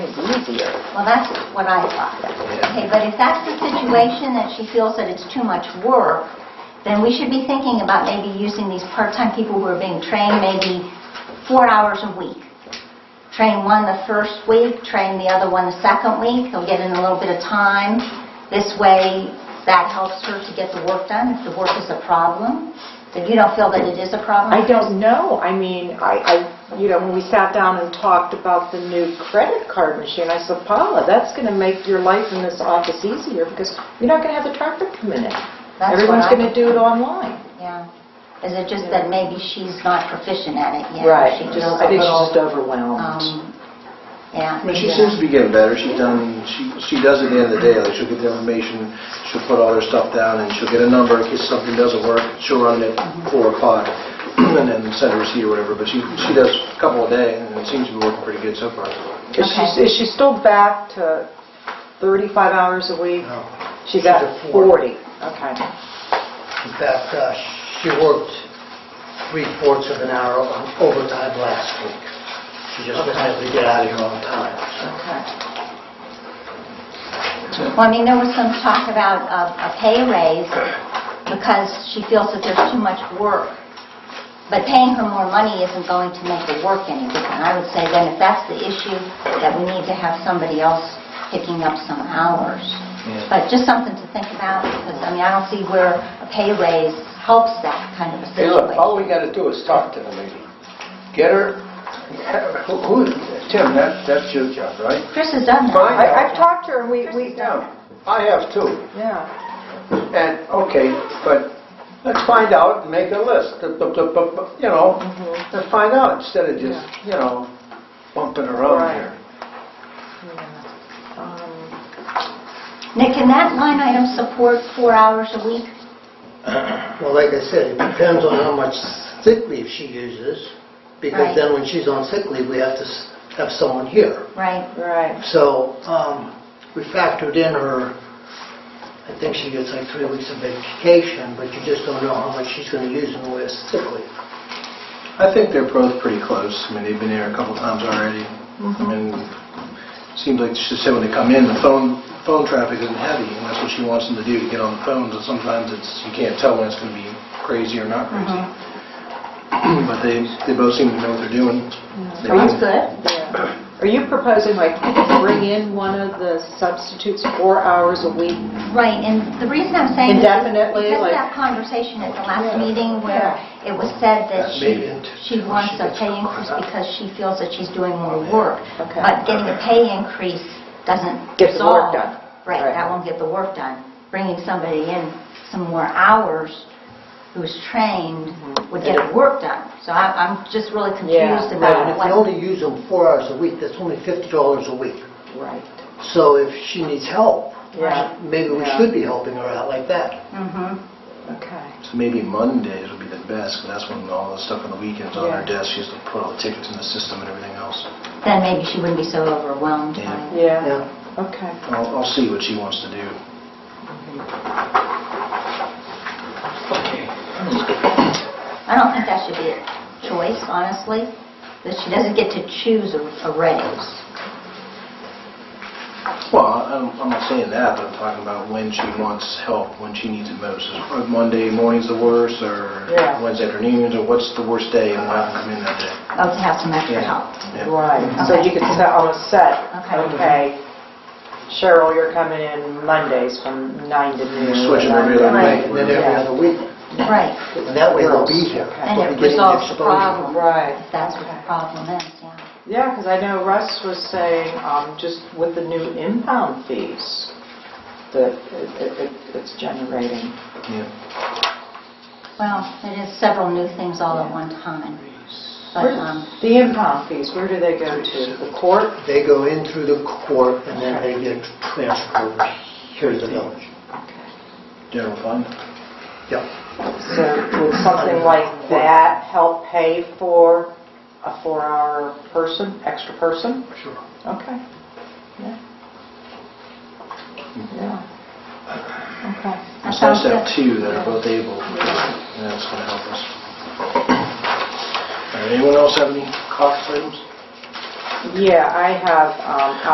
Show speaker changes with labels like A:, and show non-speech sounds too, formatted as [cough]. A: It's easier.
B: Well, that's what I thought. Okay, but if that's the situation, that she feels that it's too much work, then we should be thinking about maybe using these part-time people who are being trained, maybe four hours a week. Train one the first week, train the other one the second week, they'll get in a little bit of time. This way, that helps her to get the work done, if the work is a problem. If you don't feel that it is a problem?
A: I don't know, I mean, I, I, you know, when we sat down and talked about the new credit card machine, I said, Paula, that's going to make your life in this office easier because you're not going to have the traffic come in.
B: what
A: Everyone's
B: I-
A: going to do it online.
B: Yeah. Is it just that maybe she's not proficient at it yet? She
A: Just-
B: feels
A: I
B: a
A: think she's just
B: little,
A: overwhelmed.
B: um, yeah.
C: I mean, she
B: maybe
C: seems
B: not.
C: to be getting better. She's done, she, she does at the end of the day, like she'll get the information, she'll put all her stuff down and she'll get a number in case something doesn't work. She'll run it
D: Mm-hmm.
C: at four o'clock [clears throat] and then send a receipt or whatever, but she, she does a couple a day and it seems to be working pretty good so far.
A: Is she,
B: Okay.
A: is she still back to 35 hours a week? She's
D: She's
A: at
D: at
A: 40,
D: four.
A: okay.
D: In fact, uh, she worked three-fourths of an hour on overtime last week. She just was able to get out of here on time.
A: Okay.
B: Well, I mean, there was some talk about uh, a pay raise because she feels that there's too much work. But paying her more money isn't going to make the work any different. I would say then if that's the issue, that we need to have somebody else picking up some hours. But just something to think about because, I mean, I don't see where a pay raise helps that kind of a
E: Hey, look, all
B: situation.
E: we gotta do is talk to the lady. Get her, [laughs] who, who- Tim, that, that's your job, right?
B: Chris has done that.
E: Fine.
A: I, I've talked to her, and we, we,
E: I have too.
A: yeah.
E: And, okay, but let's find out and make a list, Bu- bu- bu- bu- bu- you know, let's find out instead of just, you know, bumping
A: Right.
E: around here.
A: yeah. Um,
B: Nick, can that line item support four hours a week?
D: Well, like I said, it depends on how much sick leave she uses,
B: Right.
D: because then when she's on sick leave, we have to s- have someone here.
B: Right.
A: Right,
D: So um, we factored in her, I think she gets like three weeks of vacation, but you just don't know how much she's going to use in the way of sick leave.
C: I think they're both pretty close. I mean, they've been here a couple times already. I mean, seems like she said when they come in, the phone, phone traffic isn't heavy, and that's what she wants them to do, to get on the phones, and sometimes it's, you can't tell when it's going to be crazy or not crazy. But they, they both seem to know what they're doing. They
B: That's
C: know.
B: good.
A: yeah. Are you proposing like bring in one of the substitutes four hours a week?
B: Right, and the reason I'm saying this is
A: Indefinitely,
B: because of
A: like-
B: that conversation at the
A: Yeah.
B: last meeting where it was said that
C: That
B: she,
C: made
D: it.
B: she wants
D: She
B: a
D: gets
B: pay
D: crap.
B: increase because she feels that she's doing more work.
A: Okay.
B: But getting a pay increase doesn't
A: Get the work
B: resolve.
A: done.
B: Right,
A: Right.
B: that won't get the work done. Bringing somebody in some more hours who's trained would get the work done. So I- I'm just really confused
A: Mm-hmm. Yeah.
B: about
D: And if you
B: what...
D: only use them four hours a week, that's only $50 a week.
A: Right.
D: So if she needs help,
A: Yeah.
D: maybe we
A: Yeah.
D: should be helping her out like that.
B: Mhm.
A: Okay.
C: So maybe Mondays would be the best, 'cause that's when all the stuff on the weekends on her
A: Yeah.
C: desk, she has to put all the tickets in the system and everything else.
B: Then maybe she wouldn't be so overwhelmed by
C: Yeah.
B: it.
A: Yeah,
D: Yeah.
A: okay.
C: I'll, I'll see what she wants to do.
B: I don't think that should be a choice, honestly, that she doesn't get to choose a a raise.
C: Well, I'm, I'm not saying that, but I'm talking about when she wants help, when she needs it most. Is are Monday morning's the worst, or
A: Yeah.
C: Wednesday afternoons, or what's the worst day, and we'll have them come in that day.
B: Oh, to have some extra
C: Yeah.
B: help.
C: Yeah.
A: Right, so you could set, almost set,
B: Okay.
A: okay, Cheryl, you're coming in Mondays from nine to noon.
C: You switch it every other
A: Right.
C: Right.
D: And then every other week,
B: Right,
D: and that way they'll be here.
A: Okay.
B: and
D: They'll be
B: it
D: getting the
B: resolves the
D: exposure.
B: problem.
A: Right.
B: If That's what the
A: Okay.
B: problem is, yeah.
A: Yeah, because I know Russ was saying, um, just with the new impound fees, that it- it- it- it's generating.
C: Yeah.
B: Well, it is several new things all at one time. But,
A: Where-
B: um,
A: The impound fees, where do they go to? The court?
D: They go in through the court and then they get transferred here to the village.
C: General fund.
D: Yep.
A: So would something like that help pay for a four-hour person, extra person?
D: Sure.
A: Okay. Yeah. Yeah. Okay.
B: that
C: It's nice
B: sounds
C: to have
B: good.
C: two that are both able, and that's going to help us. All right, anyone else have any caucus items?
A: Yeah, I have, um,